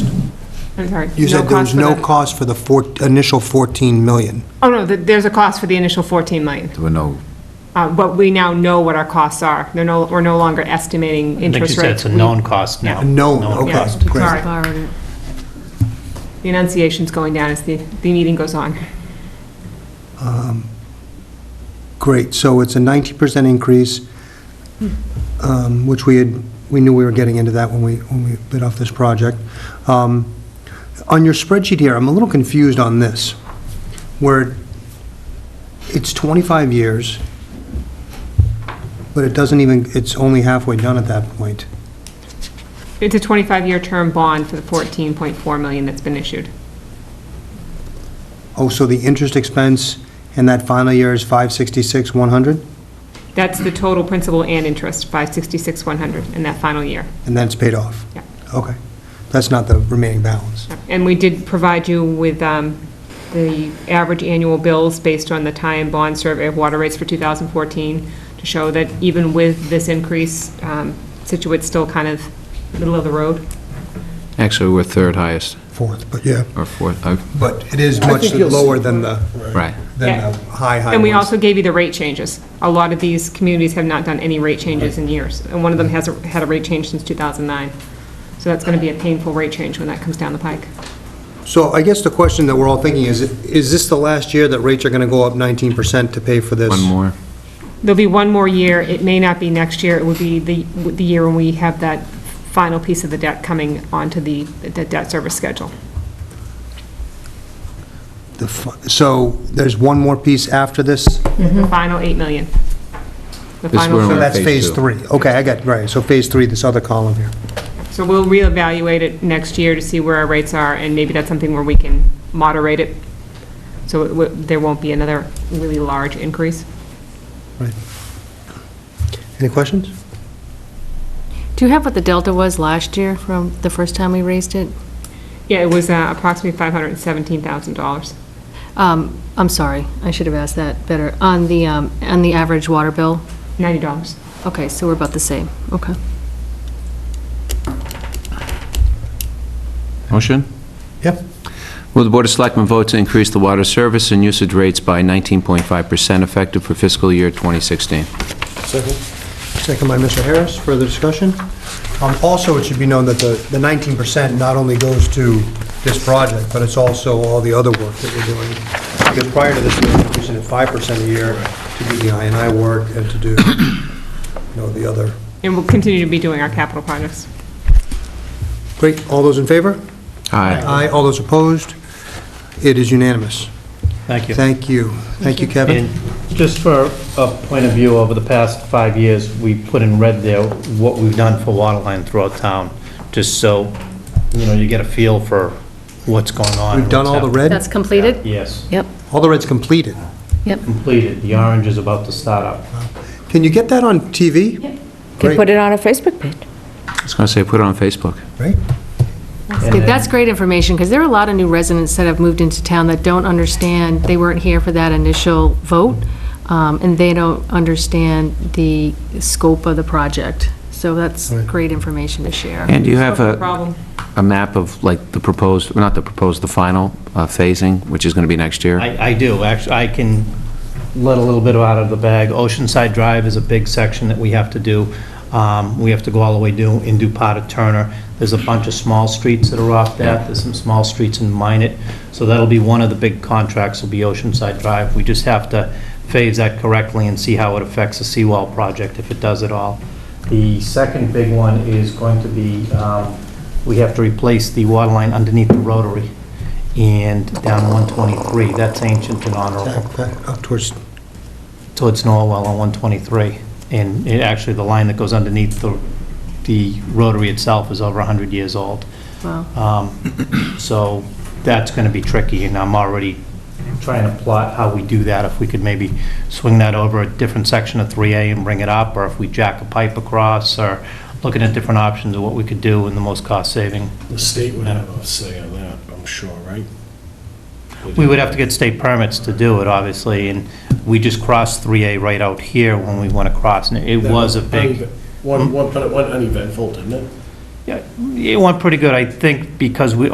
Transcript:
I'm sorry. You said there was for no the- cost for the four, initial 14 million. Oh, no, th- there's a cost for the initial 14 million, There were no, Uh, but we now know what our costs are. They're no, we're no longer estimating Like you interest rates. said, it's a We- known cost now. A known, okay. Yeah, cost, great. sorry. The enunciation's going down as the, the meeting goes on. Great, so it's a 90% increase, um, which we had, we knew we were getting into that when we, when we bid off this project. Um, On your spreadsheet here, I'm a little confused on this, where it's 25 years, but it doesn't even, it's only halfway done at that point. It's a 25-year term bond for the 14.4 million that's been issued. Oh, so the interest expense in that final year is 566, 100, That's the total principal and interest, 566, 100, in that final year. and then it's paid off? Yeah. Okay, that's not the remaining balance. And we did provide you with um, the average annual bills based on the tie and bond survey of water rates for 2014 to show that even with this increase, um, Situate's still kind of middle of the road. actually, we're third highest, Fourth, but yeah. or fourth, uh, But it is much lower than the, right. than Yeah. the high, high And we ones. also gave you the rate changes. A lot of these communities have not done any rate changes in years, and one of them hasn't had a rate change since 2009. So that's going to be a painful rate change when that comes down the pike. So I guess the question that we're all thinking is, is this the last year that rates are going to go up 19% to pay for this? One more. There'll be one more year. It may not be next year. It would be the, the year when we have that final piece of the debt coming onto the, the debt service schedule. The fu- So there's one more piece after this? The final 8 million. The This final- we're So on that's phase phase two. three. Okay, I got, right, so phase three, this other column here. So we'll reevaluate it next year to see where our rates are, and maybe that's something where we can moderate it, so it w- there won't be another really large increase. Right. Any questions? Do you have what the delta was last year from the first time we raised it? Yeah, it was uh, approximately $517,000. Um, I'm sorry, I should have asked that better. On the, um, on the average water bill? $90. Okay, so we're about the same, okay. Motion? Yep. Will the Board of Selectmen vote to increase the water service and usage rates by 19.5% effective for fiscal year 2016? Second. Second by Mr. Harris, further discussion? Um, Also, it should be known that the the 19% not only goes to this project, but it's also all the other work that we're doing. Because prior to this, we were increasing it 5% a year to do the INI work and to do, you know, the other. And we'll continue to be doing our capital projects. Great, all those in favor? Aye. Aye, all those opposed? It is unanimous. Thank you. Thank you. Thank you, And Kevin. just for a point of view, over the past five years, we put in red there what we've done for water line throughout town, just so, you know, you get a feel for what's going on. We've done all the what's That's red, completed? happening. Yes, Yep, all the red's completed. yep. completed. The orange is about to start up. Can you get that on TV? Yep. Can put Great, it on a Facebook page. I was going to say, put it on Facebook. right? And then- That's great information, because there are a lot of new residents that have moved into town that don't understand, they weren't here for that initial vote, um, and they don't understand the scope of the project. So that's Right. great information to share. And do you have No a, problem. a map of like the proposed, not the proposed, the final uh, phasing, which is going to be next year? I, I do, actually, I can let a little bit out of the bag. Oceanside Drive is a big section that we have to do. Um, We have to go all the way do, and do part of Turner. There's a bunch of small streets that are off that, there's some small streets in Minnet. So that'll be one of the big contracts, will be Oceanside Drive. We just have to phase that correctly and see how it affects the seawall project, if it does at all. The second big one is going to be, um, we have to replace the water line underneath the rotary and down 123. That's ancient and honorable. Back, back Up towards So it's Norwell on 123. And it actually, the line that goes underneath the, the rotary itself is over 100 years old. Wow. Um, So that's going to be tricky, and I'm already trying to plot how we do that, if we could maybe swing that over a different section of 3A and bring it up, or if we jack a pipe across, or looking at different options of what we could do in the most cost-saving. The state would have a say on that, I'm sure, right? We would have to get state permits to do it, obviously, and we just crossed 3A right out here when we went across, and it was a big, One, one, one uneventful, didn't it? Yeah, it went pretty good, I think, because we,